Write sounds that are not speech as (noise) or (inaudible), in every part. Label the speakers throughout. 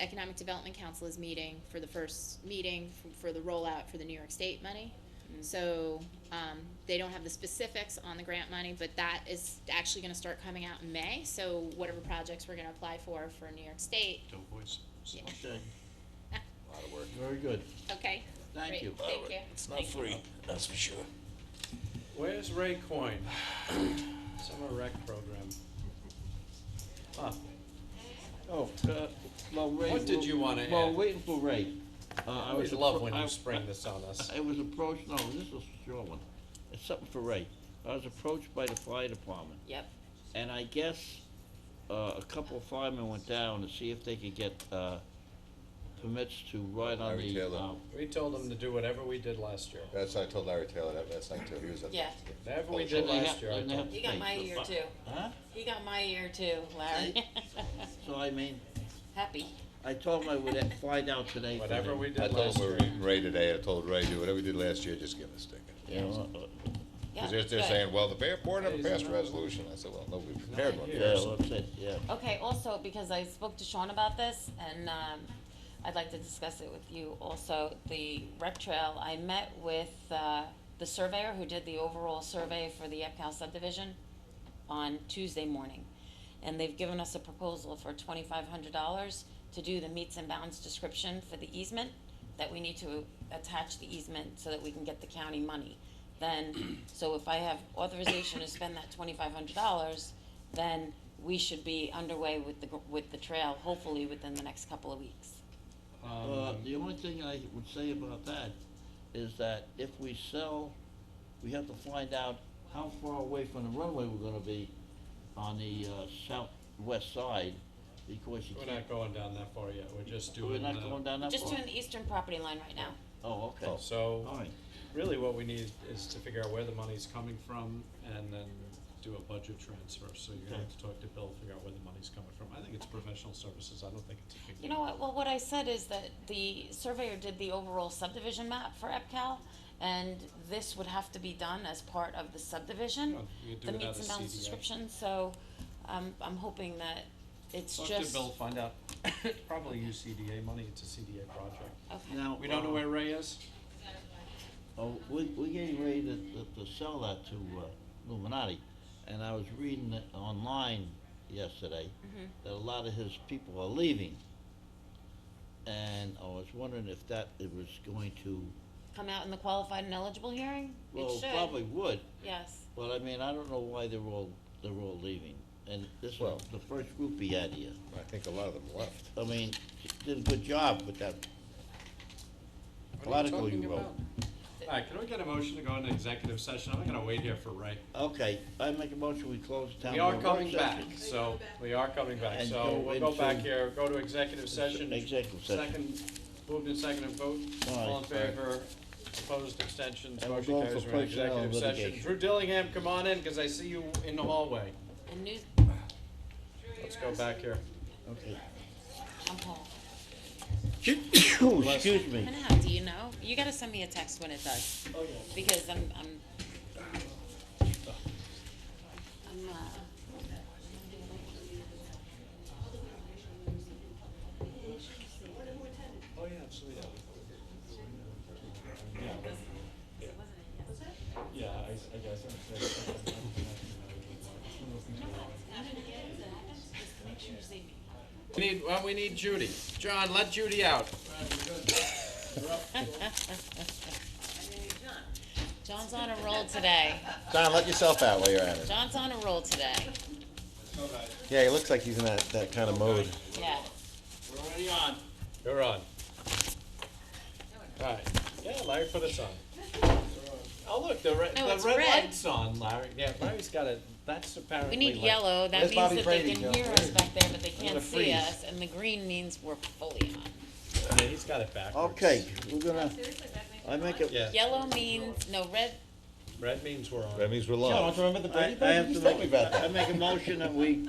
Speaker 1: Economic Development Council is meeting for the first meeting f- for the rollout for the New York State money. So, um, they don't have the specifics on the grant money, but that is actually gonna start coming out in May, so whatever projects we're gonna apply for, for New York State,
Speaker 2: Doughboys.
Speaker 1: Yeah.
Speaker 3: Okay,
Speaker 4: A lot of work.
Speaker 3: very good.
Speaker 1: okay?
Speaker 3: Thank
Speaker 1: Great.
Speaker 3: you.
Speaker 4: A lot of
Speaker 1: Thank
Speaker 4: work.
Speaker 1: you.
Speaker 4: It's not free, that's for sure.
Speaker 3: Where's Ray Coyne? Summer rec program. Ah. Oh, uh,
Speaker 5: Well, Ray,
Speaker 3: What did
Speaker 5: we'll-
Speaker 3: you wanna
Speaker 5: Well,
Speaker 3: add?
Speaker 5: waiting for Ray. Uh,
Speaker 3: I always
Speaker 5: was
Speaker 3: love
Speaker 5: appro-
Speaker 3: when
Speaker 5: I-
Speaker 3: you spring this on us.
Speaker 5: I was approached, no, this is a short one. It's something for Ray. I was approached by the fire department,
Speaker 6: Yep.
Speaker 5: and I guess, uh, a couple of firemen went down to see if they could get, uh, permits to ride on
Speaker 4: Larry
Speaker 5: the,
Speaker 4: Taylor.
Speaker 5: uh,
Speaker 3: (laughs) We told them to do whatever we did last year.
Speaker 4: That's, I told Larry Taylor that last night too, he was at.
Speaker 6: Yeah.
Speaker 3: Whatever we
Speaker 4: Oh,
Speaker 3: did
Speaker 5: and they have-
Speaker 3: last year, I
Speaker 5: and they
Speaker 3: told
Speaker 5: have
Speaker 6: You
Speaker 5: to
Speaker 6: got
Speaker 5: pay
Speaker 6: my
Speaker 5: for
Speaker 6: ear
Speaker 5: fi-
Speaker 6: too.
Speaker 5: Huh?
Speaker 6: You got my ear too, Larry.
Speaker 5: So I mean,
Speaker 6: (laughs) Happy.
Speaker 5: I told him I would uh, fly down today. for
Speaker 3: whatever
Speaker 5: him.
Speaker 3: we
Speaker 4: I
Speaker 3: did
Speaker 4: told
Speaker 3: last
Speaker 4: him we
Speaker 3: year.
Speaker 4: were meeting Ray today, I told Ray, do whatever we did last year, just give us a ticket.
Speaker 5: You know, uh,
Speaker 6: Yeah,
Speaker 4: Cause they're, they're
Speaker 6: good.
Speaker 4: saying, well, the board never
Speaker 3: Hey,
Speaker 4: passed a
Speaker 3: isn't that-
Speaker 4: resolution, I said, well, nobody prepared one
Speaker 5: Yeah,
Speaker 4: first.
Speaker 5: that's it, yeah.
Speaker 6: Okay, also, because I spoke to Sean about this, and, um, I'd like to discuss it with you also, the rec trail, I met with, uh, the surveyor who did the overall survey for the Epcal subdivision on Tuesday morning. And they've given us a proposal for twenty-five hundred dollars to do the meets and bounds description for the easement, that we need to attach the easement so that we can get the county money. Then, (clears throat) so if I have authorization to spend that twenty-five hundred dollars, then we should be underway with the, gr- with the trail, hopefully within the next couple of weeks.
Speaker 5: Uh,
Speaker 3: Um,
Speaker 5: the only thing I would say about that is that if we sell, we have to find out how far away from the runway we're gonna be on the, uh, southwest side, because you
Speaker 3: We're
Speaker 5: can't,
Speaker 3: not going down that far yet, we're just
Speaker 5: we're
Speaker 3: doing,
Speaker 5: not
Speaker 3: uh,
Speaker 5: going down that far.
Speaker 6: Just doing the eastern property line right now.
Speaker 5: Oh, okay,
Speaker 3: so,
Speaker 5: alright,
Speaker 3: really what we need is to figure out where the money's coming from and then do a budget transfer, so you're gonna have to talk to Bill, figure out where the money's coming from. I think it's professional services, I don't think it's a big.
Speaker 6: You know what, well, what I said is that the surveyor did the overall subdivision map for EPCAL, and this would have to be done as part of the subdivision.
Speaker 3: Yeah, you could do
Speaker 6: The
Speaker 3: without
Speaker 6: meets and
Speaker 3: a
Speaker 6: bounds
Speaker 3: CDA.
Speaker 6: description, so, um, I'm hoping that it's
Speaker 3: Talk
Speaker 6: just.
Speaker 3: to Bill, find out, (coughs) probably use CDA money, it's a CDA project.
Speaker 6: Okay.
Speaker 5: now.
Speaker 3: We don't know
Speaker 5: uh,
Speaker 3: where Ray is?
Speaker 5: Oh, we, we're getting ready to, to, to sell that to, uh, Illuminati, and I was reading it online yesterday,
Speaker 3: Mm-hmm.
Speaker 5: that a lot of his people are leaving. And I was wondering if that, it was going to,
Speaker 6: Come out in the qualified and eligible hearing?
Speaker 5: well,
Speaker 6: It should.
Speaker 5: probably would,
Speaker 6: Yes,
Speaker 5: but I mean, I don't know why they're all, they're all leaving. And this
Speaker 4: Well-
Speaker 5: was the first group he had here.
Speaker 4: I think a lot of them left.
Speaker 5: I mean, he did a good job with that article you wrote.
Speaker 3: All right, can we get a motion to go into executive session? I'm gonna wait here for Ray.
Speaker 5: Okay, I make a motion, we close the town.
Speaker 3: We are
Speaker 5: board
Speaker 3: coming
Speaker 5: session.
Speaker 3: back, so, we are coming back,
Speaker 5: And
Speaker 3: so
Speaker 5: go
Speaker 3: we'll go
Speaker 5: into-
Speaker 3: back here, go to executive session.
Speaker 5: Executive session.
Speaker 3: Second, moved and seconded vote, all in
Speaker 5: Aye.
Speaker 3: favor, opposed, abstentions,
Speaker 5: And we're
Speaker 3: motion
Speaker 5: going
Speaker 3: carries,
Speaker 5: for
Speaker 3: we're in
Speaker 5: personnel
Speaker 3: executive session.
Speaker 5: litigation.
Speaker 3: Drew Dillingham, come on in, cause I see you in the hallway.
Speaker 6: and news,
Speaker 3: Let's go back here.
Speaker 5: Okay.
Speaker 6: I'm home.
Speaker 5: Excuse me.
Speaker 6: And how do you know? You gotta send me a text when it does. Oh, yeah. Because I'm, I'm. I'm, uh.
Speaker 7: Yeah, I, I guess I'm saying.
Speaker 3: We need, well, we need Judy. John, let Judy out.
Speaker 6: John's on a roll today.
Speaker 4: John, let yourself out while you're at it.
Speaker 6: John's on a roll today.
Speaker 4: Yeah, he looks like he's in that, that kind of mode.
Speaker 6: Yeah.
Speaker 5: We're already on.
Speaker 3: You're on. Alright, yeah, Larry put us on. Oh, look, the red,
Speaker 6: No,
Speaker 3: the
Speaker 6: it's
Speaker 3: red
Speaker 6: red.
Speaker 3: light's on, Larry, yeah, Larry's got it, that's
Speaker 6: We
Speaker 3: apparently.
Speaker 6: need
Speaker 3: like-
Speaker 6: yellow. That
Speaker 4: Where's
Speaker 6: means
Speaker 4: Bobby
Speaker 6: that
Speaker 4: Brady,
Speaker 6: they can
Speaker 4: Joe?
Speaker 6: hear us back there, but they
Speaker 3: gonna
Speaker 6: can't see
Speaker 3: freeze.
Speaker 6: us. And the green means we're fully on.
Speaker 3: Yeah, he's got it backwards.
Speaker 5: Okay, we're gonna, I make a,
Speaker 3: Yeah,
Speaker 6: Yellow means, no, red,
Speaker 3: red means we're
Speaker 4: That
Speaker 3: on.
Speaker 4: means we're
Speaker 3: John,
Speaker 4: live.
Speaker 3: do you remember the
Speaker 5: I,
Speaker 3: Brady
Speaker 5: I
Speaker 3: Bunch?
Speaker 5: have
Speaker 3: You
Speaker 5: to
Speaker 3: told me
Speaker 5: make,
Speaker 3: about
Speaker 5: I
Speaker 3: that.
Speaker 5: make a motion that we.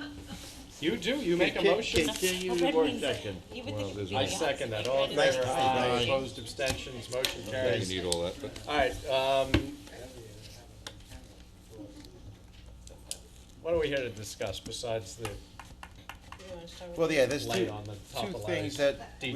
Speaker 3: You do, you make a
Speaker 5: conti-
Speaker 3: motion.
Speaker 5: Continue
Speaker 6: Well,
Speaker 5: the
Speaker 6: red
Speaker 5: work
Speaker 6: means that-
Speaker 5: session.
Speaker 6: you would
Speaker 4: Well,
Speaker 6: think.
Speaker 4: there's
Speaker 6: it'd
Speaker 3: I
Speaker 6: be the
Speaker 3: second
Speaker 6: opposite,
Speaker 3: that,
Speaker 6: like
Speaker 3: all in
Speaker 6: red is
Speaker 3: favor,
Speaker 6: red.
Speaker 3: aye,
Speaker 6: Aye.
Speaker 3: opposed, abstentions, motion
Speaker 4: Yeah, you
Speaker 3: carries.
Speaker 4: need all that, but.
Speaker 3: Alright, um. What are we here to discuss besides the
Speaker 8: wanna start with?
Speaker 3: Well, yeah, there's
Speaker 5: Light
Speaker 3: two,
Speaker 5: on the top
Speaker 3: two
Speaker 5: of lights.
Speaker 3: things that